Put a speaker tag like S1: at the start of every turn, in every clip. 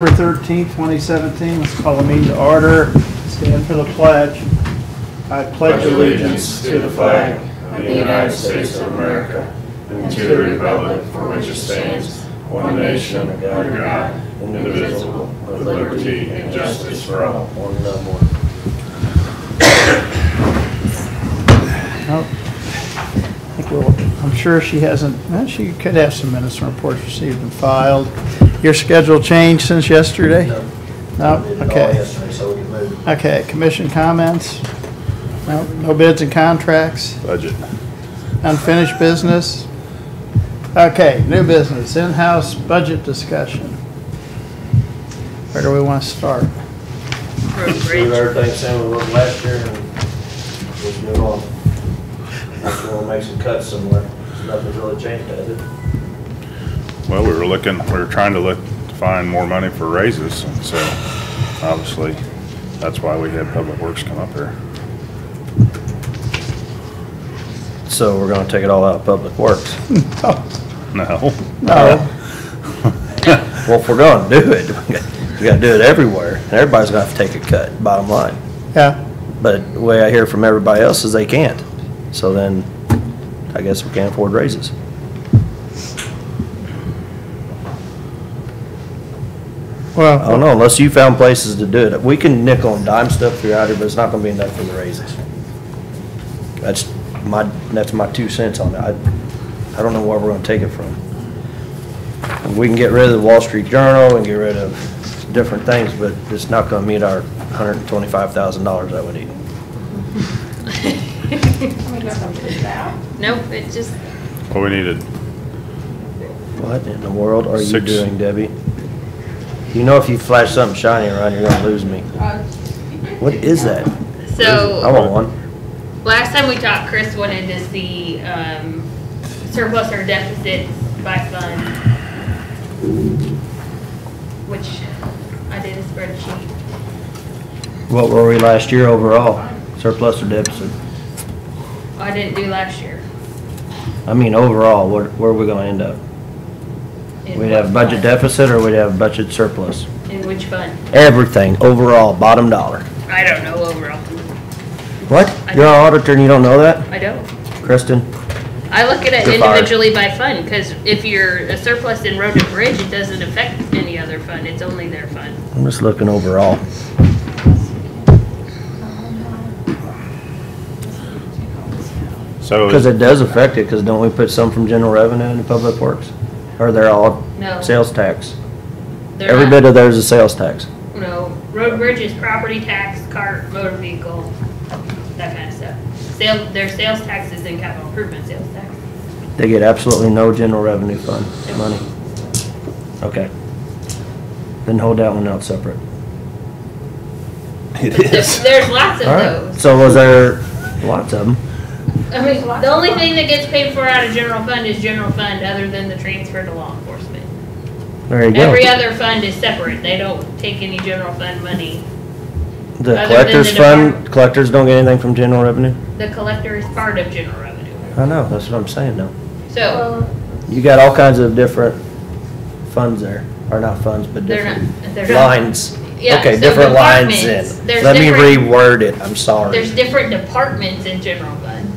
S1: November 13, 2017, let's call a meeting to order. Stand for the pledge. I pledge allegiance to the flag.
S2: of the United States of America and to the republic for which it stands, one nation, under God, indivisible, with liberty and justice for all.
S1: Nope. Oh. I think we'll- I'm sure she hasn't, well, she could have some minutes and reports received and filed. Your schedule changed since yesterday? No.
S3: We did it all
S1: okay.
S3: yesterday, so we can move.
S1: Okay, commission comments? No, no bids and contracts?
S4: budget.
S1: Unfinished business? Okay, new business, in-house budget discussion. Where do we want to start?
S3: Leave
S5: appropriate.
S3: everything same we was last year and just move on. Just wanna make some cuts somewhere. Nothing's really changed, has it?
S4: Well, we were looking, we were trying to look, to find more money for raises, and so obviously, that's why we had Public Works come up here.
S3: So we're gonna take it all out of public works.
S4: No,
S1: No,
S3: Well, if we're gonna do it, we gotta do it everywhere. Everybody's gonna have to take a cut, bottom line.
S1: yeah,
S3: But the way I hear from everybody else is they can't. So then, I guess we can't afford raises. I don't
S1: well,
S3: know, unless you found places to do it. We can nickel and dime stuff throughout here, but it's not gonna be enough for the raises. That's my, that's my two cents on it. I, I don't know where we're gonna take it from. We can get rid of the Wall Street Journal and get rid of different things, but it's not gonna meet our hundred and twenty-five thousand dollars that we need.
S5: Nope, it just,
S4: well, we needed,
S3: What in the world are you
S4: Six.
S3: doing, Debbie? You know if you flash something shiny around, you're gonna lose me. What is that? I
S5: so,
S3: want one.
S5: last time we talked, Chris wanted to see, um, surplus or deficits by fund. Which I did a spreadsheet.
S3: What were we last year overall? Surplus or deficit?
S5: Oh, I didn't do last year.
S3: I mean, overall, where, where are we gonna end up? We'd
S5: In what
S3: have budget
S5: fund?
S3: deficit or we'd have budget surplus?
S5: In which fund?
S3: Everything, overall, bottom dollar.
S5: I don't know overall.
S3: What? You're our auditor and you don't know that?
S5: I don't.
S3: Kristen?
S5: I look at it
S3: You're fired.
S5: individually by fund, because if you're a surplus in road and bridge, it doesn't affect any other fund. It's only their fund.
S3: I'm just looking overall.
S4: so,
S3: Cause it does affect it, cause don't we put some from general revenue into public works? Or they're all
S5: No.
S3: sales tax?
S5: They're
S3: Every
S5: not-
S3: bit of theirs is sales tax.
S5: No, road bridges, property tax, cart, motor vehicle, that kind of stuff. Sale, their sales taxes and capital improvement sales tax.
S3: They get absolutely no general revenue fund money. Okay. Then hold that one out separate.
S4: it
S5: There-
S4: is.
S5: There's lots of
S3: Alright,
S5: those.
S3: so was there lots of them?
S5: I mean, the only thing that gets paid for out of general fund is general fund, other than the transfer to law enforcement.
S3: There you go.
S5: Every other fund is separate. They don't take any general fund money. other
S3: The
S5: than
S3: collectors
S5: the
S3: fund,
S5: department-
S3: collectors don't get anything from general revenue?
S5: The collector is part of general revenue.
S3: I know, that's what I'm saying though.
S5: So
S6: Uh,
S3: You got all kinds of different funds there, or not funds, but
S5: they're not,
S3: different
S5: they're not.
S3: lines.
S5: Yeah,
S3: Okay,
S5: so
S3: different lines then.
S5: departments, there's
S3: Let me
S5: different-
S3: reword it, I'm
S5: There's
S3: sorry.
S5: different departments in general fund,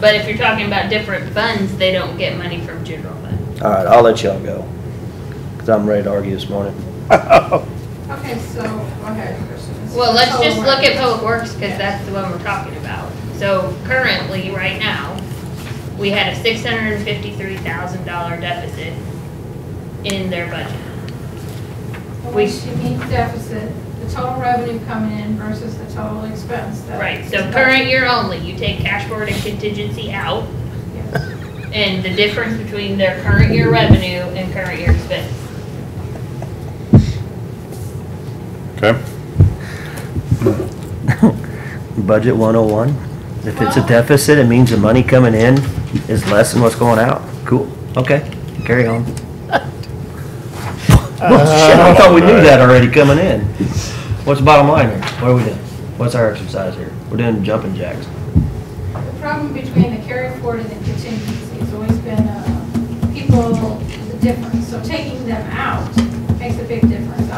S5: but if you're talking about different funds, they don't get money from general fund.
S3: All right, I'll let y'all go, because I'm ready to argue this morning.
S6: Okay, so, go ahead, Kristen.
S5: Well, let's just look at public works, because that's the one we're talking about. So currently, right now, we had a six hundred and fifty-three thousand dollar deficit in their budget.
S6: We should meet deficit, the total revenue coming in versus the total expense. that-
S5: Right, so current year only, you take cash forward and contingency out,
S6: Yes.
S5: and the difference between their current year revenue and current year expense.
S4: Okay,
S3: Budget 101, if it's a deficit, it means the money coming in is less than what's going out. Cool, okay, carry on. Well, shit, I thought we knew that already coming in. What's the bottom line here? What are we doing? What's our exercise here? We're doing jumping jacks.
S6: The problem between the carry forward and the contingency has always been, uh, people, the difference, so taking them out makes a big difference.